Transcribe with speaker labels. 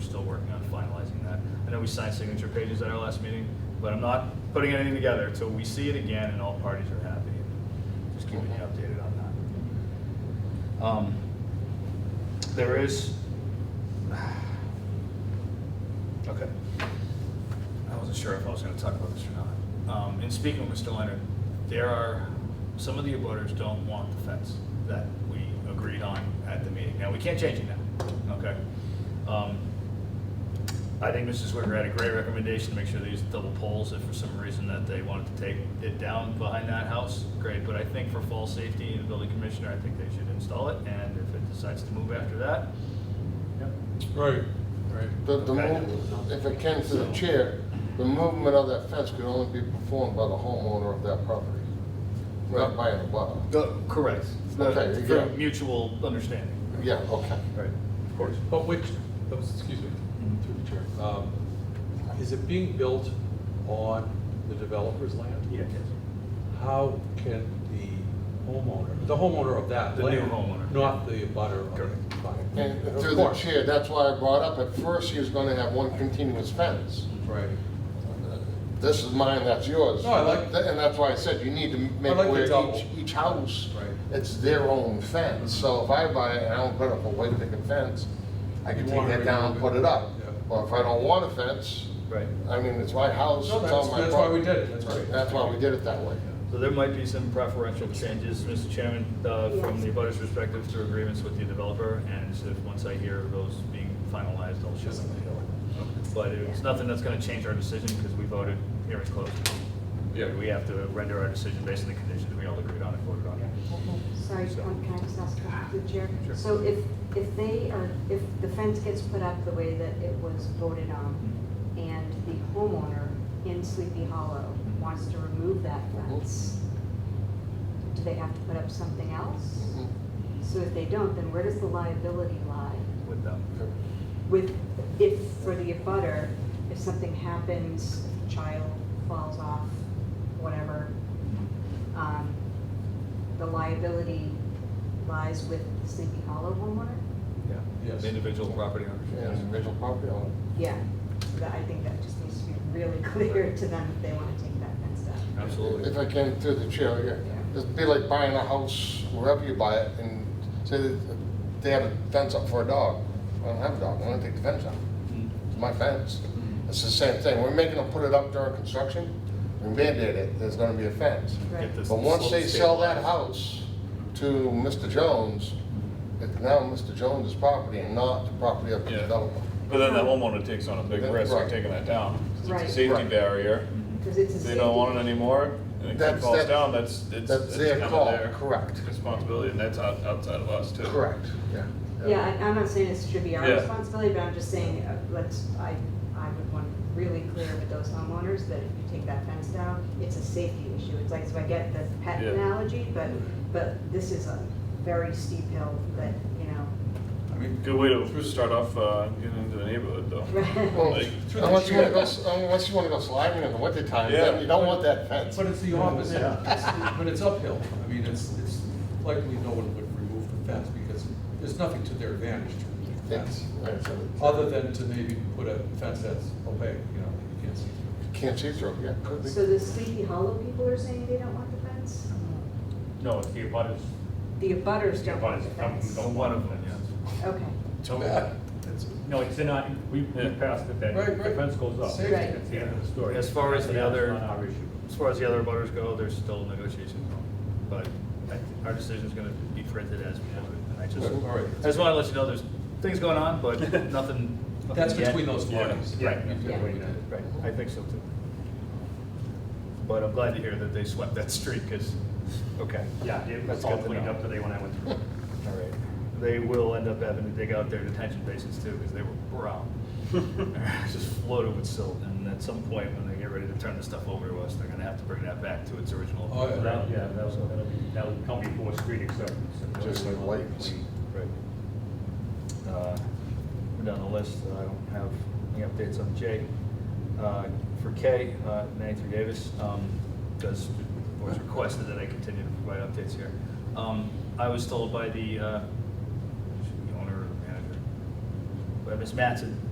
Speaker 1: still working on finalizing that. I know we signed signature pages at our last meeting, but I'm not putting anything together until we see it again and all parties are happy. Just keeping you updated on that. Um, There is. Okay. I wasn't sure if I was gonna talk about this or not. Um, in speaking with Mr. Leonard, there are, some of the abutters don't want the fence that we agreed on at the meeting. Now, we can't change it now, okay? Um, I think Mrs. Wicker had a great recommendation to make sure they use double poles if for some reason that they wanted to take it down behind that house, great. But I think for fall safety and the building commissioner, I think they should install it, and if it decides to move after that,
Speaker 2: Right, right.
Speaker 3: The, the
Speaker 1: Okay.
Speaker 3: move, if it came to the chair, the movement of that fence could only be performed by the homeowner of that property, not by an abutter.
Speaker 1: Correct.
Speaker 3: Okay,
Speaker 1: For
Speaker 3: yeah.
Speaker 1: mutual understanding.
Speaker 3: Yeah, okay.
Speaker 1: Right, of course.
Speaker 2: But which, oh, excuse me, through the chair. Um, Is it being built on the developer's land?
Speaker 1: Yeah.
Speaker 2: How can the homeowner, the homeowner of that
Speaker 1: The new
Speaker 2: land?
Speaker 1: homeowner.
Speaker 2: Not the butter of the
Speaker 1: Correct.
Speaker 2: client?
Speaker 3: And
Speaker 2: Of
Speaker 3: through the
Speaker 2: course.
Speaker 3: chair, that's why I brought up, at first he was gonna have one continuous fence.
Speaker 2: Right.
Speaker 3: This is mine, that's yours.
Speaker 2: No, I like-
Speaker 3: Th- And that's why I said you need to make
Speaker 2: like the
Speaker 3: where
Speaker 2: double.
Speaker 3: each, each house,
Speaker 2: Right.
Speaker 3: it's their own fence. So if I buy it and I don't put up a white picket fence, I can
Speaker 2: You
Speaker 3: take
Speaker 2: want
Speaker 3: that
Speaker 2: it
Speaker 3: down and
Speaker 2: to be-
Speaker 3: put it up.
Speaker 2: Yeah.
Speaker 3: Or if I don't want a fence,
Speaker 1: Right.
Speaker 3: I mean, it's my house, it's
Speaker 2: No,
Speaker 3: on my
Speaker 2: that's,
Speaker 3: property.
Speaker 2: that's why we did it, that's right.
Speaker 3: That's why we did it that way.
Speaker 1: So there might be some preferential changes, Mr. Chairman, uh, from the abutters' perspective to agreements with the developer, and if, once I hear those being finalized, I'll share them. But it's nothing that's gonna change our decision, because we voted, hearing closed.
Speaker 2: Yeah.
Speaker 1: We have to render our decision based on the conditions we all agreed on and voted on.
Speaker 4: Sorry, um, can I just ask a question through the chair?
Speaker 1: Sure.
Speaker 4: So if, if they are, if the fence gets put up the way that it was voted on, and the homeowner in Sleepy Hollow wants to remove that fence, do they have to put up something else?
Speaker 3: Mm-hmm.
Speaker 4: So if they don't, then where does the liability lie
Speaker 1: With them.
Speaker 4: with, if, for the abutter, if something happens, if a child falls off, whatever, um, the liability lies with the Sleepy Hollow homeowner?
Speaker 1: Yeah.
Speaker 2: Yes.
Speaker 1: Individual property owners.
Speaker 3: Yeah, Individual property owner.
Speaker 4: Yeah, so that, I think that just needs to be really clear to them if they wanna take that fence down.
Speaker 1: Absolutely.
Speaker 3: If I can, through the chair, yeah. It'd be like buying a house wherever you buy it and say that they have a fence up for a dog. I don't have a dog, I'm gonna take the fence out. It's my fence. It's the same thing. We're making them put it up during construction. We mandate it, there's gonna be a fence.
Speaker 4: Right.
Speaker 1: Get this
Speaker 3: But once they
Speaker 1: slope
Speaker 3: sell that
Speaker 1: stabilized.
Speaker 3: house to Mr. Jones, it's now Mr. Jones' property and not the property of the
Speaker 5: Yeah.
Speaker 3: developer.
Speaker 5: But then that homeowner takes on a big risk
Speaker 3: Right.
Speaker 5: of taking that down. 'cause
Speaker 4: Right.
Speaker 5: It's a safety
Speaker 3: Right.
Speaker 5: barrier.
Speaker 4: Cause it's a
Speaker 5: If
Speaker 4: safety.
Speaker 5: they don't want it anymore, and it
Speaker 3: That's-
Speaker 5: falls
Speaker 3: that's-
Speaker 5: down, that's, it's
Speaker 3: That's
Speaker 5: it's
Speaker 3: their
Speaker 5: kind of
Speaker 3: call,
Speaker 5: their
Speaker 3: correct.
Speaker 5: responsibility, and that's out- outside of us too.
Speaker 3: Correct, yeah.
Speaker 4: Yeah, I- I'm not saying it should be our
Speaker 5: Yeah.
Speaker 4: responsibility, but I'm just saying, uh, let's, I, I would want really clear with those homeowners that if you take that fence down, it's a safety issue. It's like, so I get the pet
Speaker 5: Yeah.
Speaker 4: analogy, but, but this is a very steep hill that, you know.
Speaker 5: I mean, good way to start off uh, getting into the neighborhood though.
Speaker 3: Well,
Speaker 5: Like-
Speaker 3: Unless you wanna go, unless you wanna go sliding in the wintertime,
Speaker 5: Yeah.
Speaker 3: then you don't want that fence.
Speaker 2: But it's the opposite, It's- but it's uphill. I mean, it's, it's likely no one would remove the fence because there's nothing to their advantage to remove the
Speaker 3: It's-
Speaker 2: fence.
Speaker 3: it's- it's-
Speaker 2: Other than to maybe put a fence that's opaque, you know, that you can't see through.
Speaker 3: Can't see through, yeah, could be.
Speaker 4: So the Sleepy Hollow people are saying they don't want the fence?
Speaker 6: No, it's the abutters.
Speaker 4: The abutters don't
Speaker 6: The
Speaker 4: want the
Speaker 6: abutters, um,
Speaker 4: fence?
Speaker 6: no.
Speaker 1: One of them, yes.
Speaker 4: Okay,
Speaker 6: So,
Speaker 2: bad.
Speaker 6: no, it's not, we we
Speaker 5: Yeah.
Speaker 6: passed it, that
Speaker 2: Right, right.
Speaker 6: the fence goes up.
Speaker 2: Safety.
Speaker 4: Right.
Speaker 6: That's the end of the story.
Speaker 1: As far as the
Speaker 6: That's
Speaker 1: other-
Speaker 6: not our issue.
Speaker 1: As far as the other butters go, there's still negotiation going, but I think our decision's gonna be printed as we have it. And I just,
Speaker 2: All right.
Speaker 1: I just wanna let you know there's things going on, but nothing. nothing
Speaker 2: That's
Speaker 1: yet.
Speaker 2: between those parties.
Speaker 1: Yeah. Right.
Speaker 2: You could-
Speaker 4: Yeah.
Speaker 2: you could-
Speaker 1: Right, I think so too. But I'm glad to hear that they swept that street, cause, okay.
Speaker 6: Yeah, it
Speaker 1: That's
Speaker 6: was
Speaker 1: good
Speaker 6: all
Speaker 1: to
Speaker 6: cleaned
Speaker 1: know.
Speaker 6: up today when I went through.
Speaker 1: All right. They will end up having to dig out their detention basins too, because they were brown. Just floated with silt, and at some point, when they get ready to turn the stuff over to us, they're gonna have to bring that back to its original.
Speaker 2: Oh,
Speaker 6: So that- Yeah, that'll, that'll be, that'll come before street acceptance.
Speaker 3: Just like lights.
Speaker 1: Right. Uh, We're down the list, Uh, I don't have any updates on J. Uh, For K, uh, Nancy Davis, um, does, was requested that I continue to provide updates here. Um, I was told by the, uh, the owner or manager, by Ms. Matson,